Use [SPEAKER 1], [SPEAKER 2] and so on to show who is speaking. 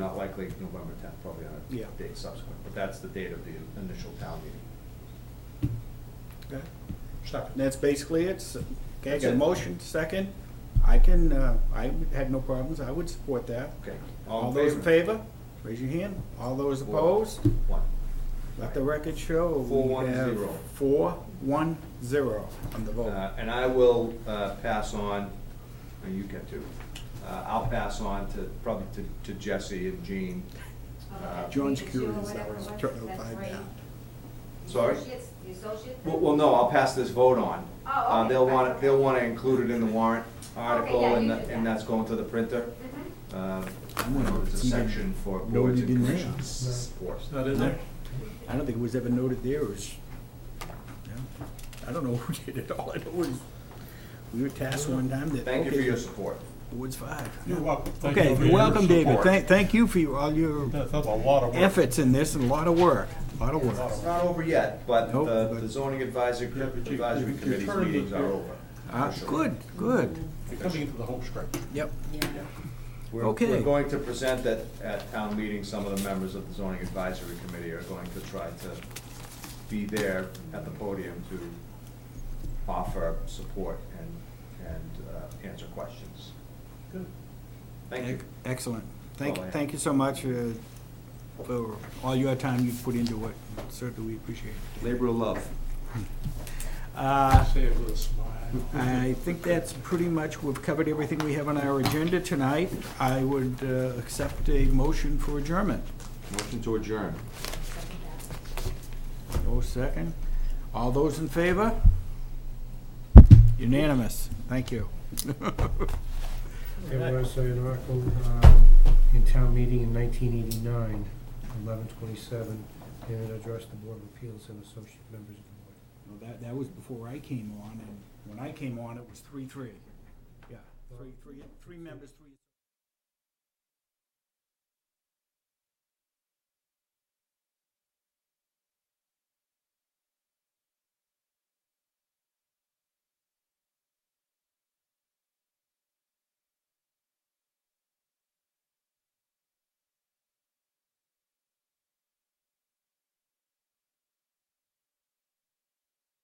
[SPEAKER 1] likely November tenth, probably on
[SPEAKER 2] Yeah.
[SPEAKER 1] a date subsequent, but that's the date of the initial town meeting.
[SPEAKER 2] Okay.
[SPEAKER 3] Second.
[SPEAKER 2] That's basically it. So- Okay, I
[SPEAKER 1] That's
[SPEAKER 2] got a
[SPEAKER 1] it.
[SPEAKER 2] motion, second. I can, uh, I had no problems. I would support that.
[SPEAKER 1] Okay.
[SPEAKER 2] All those in favor, raise your hand. All those opposed,
[SPEAKER 1] One.
[SPEAKER 2] let the record show. we
[SPEAKER 1] Four, one,
[SPEAKER 2] have
[SPEAKER 1] zero.
[SPEAKER 2] Four, one, zero on the vote.
[SPEAKER 1] Uh, And I will uh, pass on, and you get to, uh, I'll pass on to, probably to to Jesse and Jean. Uh,
[SPEAKER 2] John's
[SPEAKER 4] John's
[SPEAKER 2] curious,
[SPEAKER 4] curious,
[SPEAKER 2] I
[SPEAKER 4] that
[SPEAKER 2] was
[SPEAKER 4] was
[SPEAKER 2] trying to find
[SPEAKER 4] trying
[SPEAKER 2] out.
[SPEAKER 1] Sorry?
[SPEAKER 4] The associate?
[SPEAKER 1] Well, well, no, I'll pass this vote on.
[SPEAKER 4] Oh,
[SPEAKER 1] Uh,
[SPEAKER 4] okay.
[SPEAKER 1] They'll want, they'll want to include it in the warrant article,
[SPEAKER 4] yeah,
[SPEAKER 1] and
[SPEAKER 4] you
[SPEAKER 1] that-
[SPEAKER 4] do
[SPEAKER 1] and
[SPEAKER 4] that.
[SPEAKER 1] that's going to the printer.
[SPEAKER 4] Mhm.
[SPEAKER 1] Uh,
[SPEAKER 2] I'm gonna
[SPEAKER 1] There's a
[SPEAKER 2] see that.
[SPEAKER 1] section for
[SPEAKER 2] No,
[SPEAKER 1] boards and
[SPEAKER 2] you didn't
[SPEAKER 1] commissions.
[SPEAKER 2] have.
[SPEAKER 1] Support.
[SPEAKER 3] Not in there?
[SPEAKER 2] I don't think it was ever noted there, it was, yeah. I don't know who did it, all I know was, we were tasked one time that,
[SPEAKER 1] Thank you for
[SPEAKER 2] okay,
[SPEAKER 1] your support.
[SPEAKER 2] Ward's five.
[SPEAKER 3] You're welcome. Thank you
[SPEAKER 2] Okay,
[SPEAKER 3] for
[SPEAKER 2] you're
[SPEAKER 3] your
[SPEAKER 2] welcome, David,
[SPEAKER 1] support.
[SPEAKER 2] thank, thank you for your- all your
[SPEAKER 3] That's that's a lot of work.
[SPEAKER 2] efforts in this, and a lot of work, a lot of
[SPEAKER 3] A lot
[SPEAKER 2] work.
[SPEAKER 3] of
[SPEAKER 1] It's not over yet, but
[SPEAKER 2] Nope,
[SPEAKER 1] the
[SPEAKER 2] but-
[SPEAKER 1] the zoning advisory,
[SPEAKER 3] Yeah, but you-
[SPEAKER 1] advisory
[SPEAKER 3] you- you
[SPEAKER 1] committee's
[SPEAKER 3] turned it-
[SPEAKER 1] meetings are
[SPEAKER 3] you're-
[SPEAKER 1] over.
[SPEAKER 2] Ah,
[SPEAKER 1] for sure.
[SPEAKER 2] good, good,
[SPEAKER 3] You're Coming into the home stretch.
[SPEAKER 2] yep,
[SPEAKER 5] Yeah.
[SPEAKER 1] We're,
[SPEAKER 2] Okay.
[SPEAKER 1] we're going to present at, at town meeting, some of the members of the zoning advisory committee are going to try to be there at the podium to offer support and, and uh, answer questions.
[SPEAKER 3] Good.
[SPEAKER 1] Thank you.
[SPEAKER 2] Ec- E-, excellent. Thank,
[SPEAKER 1] Oh, yeah.
[SPEAKER 2] thank you so much uh, for all your time you've put into it, certainly we appreciate it.
[SPEAKER 1] Labor of love.
[SPEAKER 2] Uh,
[SPEAKER 3] Say it with a smile.
[SPEAKER 2] I think that's pretty much, we've covered everything we have on our agenda tonight. I would uh, accept a motion for adjournment.
[SPEAKER 1] Motion to adjourn.
[SPEAKER 2] No second. All those in favor? Unanimous. Thank you.
[SPEAKER 6] There was an article um, in town meeting in 1989, 1127, and it addressed the Board of Appeals and associate members of the board.
[SPEAKER 2] Well, That, that was before I came on, and when I came on, it was three-three. Yeah, three, three, three members, three.